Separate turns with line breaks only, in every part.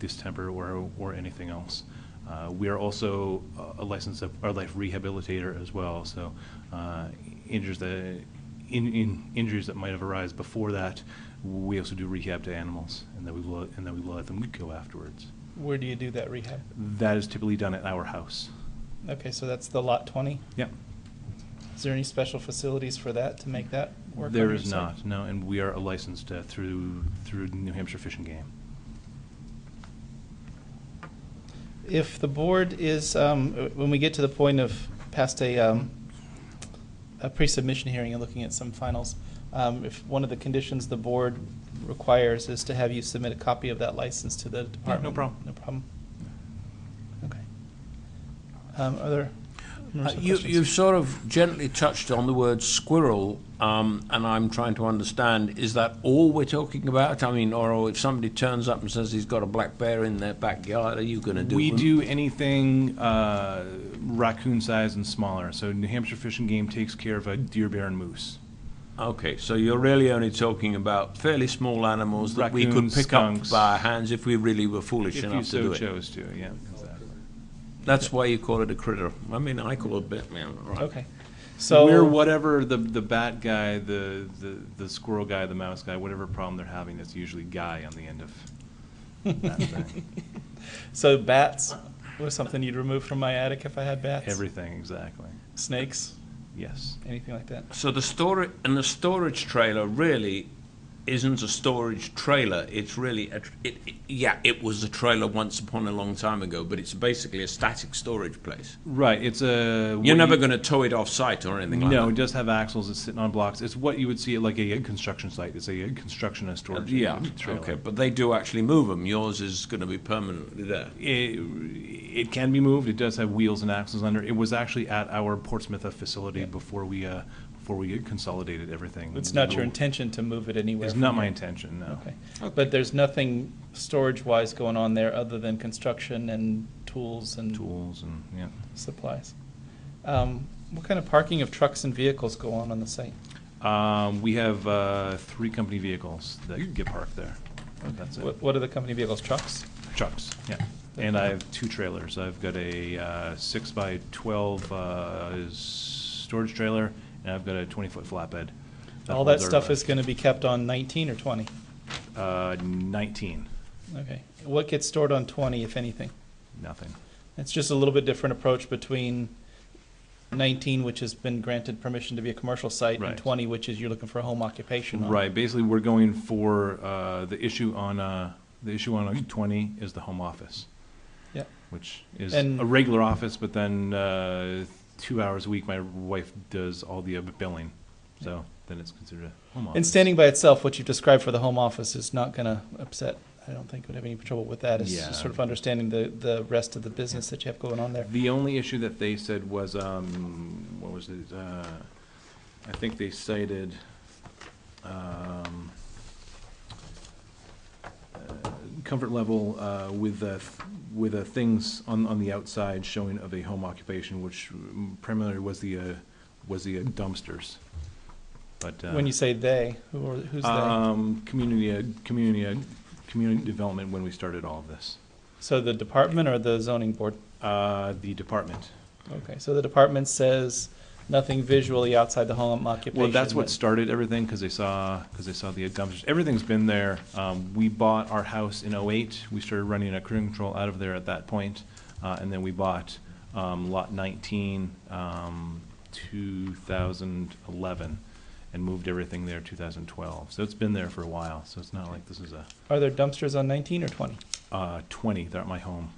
distemper or, or anything else. Uh, We are also a- a licensed of- a life rehabilitator as well, so uh, injuries that, in, in, injuries that might have arisen before that, we also do rehab to animals, and then we will, and then we will let them go afterwards.
Where do you do that rehab?
That is typically done at our house.
Okay, so that's the lot twenty.
Yep.
Is there any special facilities for that to make that work? on
There
your
is
side?
not, no, and we are a licensed uh, through, through New Hampshire Fish and Game.
If the board is, um, uh, when we get to the point of past a, um, a pre-submission hearing and looking at some finals, um, if one of the conditions the board requires is to have you submit a copy of that license to the department.
problem.
No problem. Okay. Um, are there numerous
Uh,
other
You,
questions?
you've sort of gently touched on the word squirrel, um, and I'm trying to understand, is that all we're talking about? I mean, or if somebody turns up and says he's got a black bear in their backyard, are you going to do
We
them?
do anything uh, raccoon size and smaller. So New Hampshire Fish and Game takes care of a deer, bear, and moose.
Okay, so you're really only talking about fairly small animals that we could
Raccoons,
pick
skunks.
up by our hands if we really were foolish
If you
enough to
so
do it.
chose to, yeah. exactly.
That's why you call it a critter. I mean, I call it bit man. Right.
Okay. So.
We're whatever the, the bat guy, the, the, the squirrel guy, the mouse guy, whatever problem they're having, that's usually guy on the end of that thing.
So bats was something you'd remove from my attic if I had bats?
Everything, exactly.
Snakes,
Yes.
anything like that?
So the storage and the storage trailer really isn't a storage trailer. It's really a tr- it, it, yeah, it was a trailer once upon a long time ago, but it's basically a static storage place.
Right, it's a. what you-
You're never going to tow it off site or anything like
No, it
that.
does have axles, it's sitting on blocks. It's what you would see at like a construction site. It's a construction and storage.
yeah,
trailer.
okay, but they do actually move them. Yours is going to be permanently there.
it, it can be moved. It does have wheels and axles under. It was actually at our Portsmouth uh, facility before we, uh, before we consolidated everything.
It's not your
It
intention to move it anywhere?
It's
from
not my
here?
intention, no.
Okay. But there's nothing storage-wise going on there other than construction and tools and
Tools and, yeah.
supplies? Um, What kind of parking of trucks and vehicles go on on the site?
Um, we have, uh, three company vehicles that get parked there. Uh, That's it.
What what are the company vehicles, trucks?
Trucks, yeah. And I have two trailers. I've got a, uh, six by twelve, uh, s- storage trailer and I've got a twenty-foot flatbed.
All that
holds our,
stuff
uh,
is going to be kept on 19 or 20?
Uh, nineteen,
Okay. What gets stored on 20, if anything?
nothing.
It's just a little bit different approach between 19, which has been granted permission to be a commercial site, and
Right.
20, which is you're looking for a home occupation on.
Right, basically, we're going for, uh, the issue on, uh, the issue on twenty is the home office.
Yeah.
Which is
And-
a regular office, but then, uh, two hours a week, my wife does all the uh, billing, so then it's considered a home office.
And standing by itself, what you've described for the home office is not going to upset, I don't think would have any trouble with that. It's
Yeah.
just sort of understanding the, the rest of the business that you have going on there.
The only issue that they said was, um, what was it, uh, I think they cited, um, uh, comfort level, uh, with the, with the things on, on the outside showing of a home occupation, which primarily was the, uh, was the dumpsters. But, uh.
When you say they, who are, who's they?
Um, community, uh, community, uh, community development when we started all of this.
So the department or the zoning board?
Uh, the department.
Okay, so the department says nothing visually outside the home occupation.
Well, that's what
but-
started everything, because they saw, because they saw the dumpsters. Everything's been there. Um, we bought our house in '08. We started running a cruise control out of there at that point. Uh, and then we bought, um, lot nineteen, um, two thousand eleven, and moved everything there two thousand twelve. So it's been there for a while, so it's not like this is a,
Are there dumpsters on 19 or 20?
uh, twenty, they're at my home.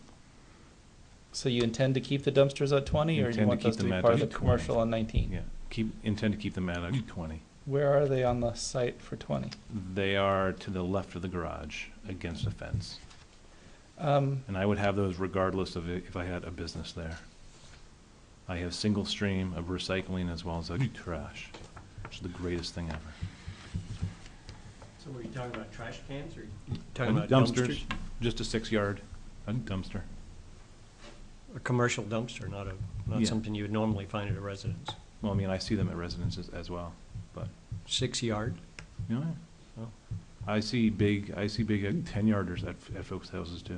So you intend to keep the dumpsters at 20, or you
Intend to
want those
keep
to
them
be
at
part of the
20.
commercial on 19?
Yeah, keep, intend to keep them at a twenty.
Where are they on the site for 20?
They are to the left of the garage, against a fence.
Um,
And I would have those regardless of i- if I had a business there. I have single stream of recycling as well as a trash, which is the greatest thing ever.
So were you talking about trash cans or?
Just a six-yard a dumpster.
A commercial dumpster, not a,
Yeah.
not something you would normally find at a residence.
Well, I mean, I see them at residences as well, but,
Six yard?
you know, I see big, I see big uh, ten-yarders at, at folks' houses too.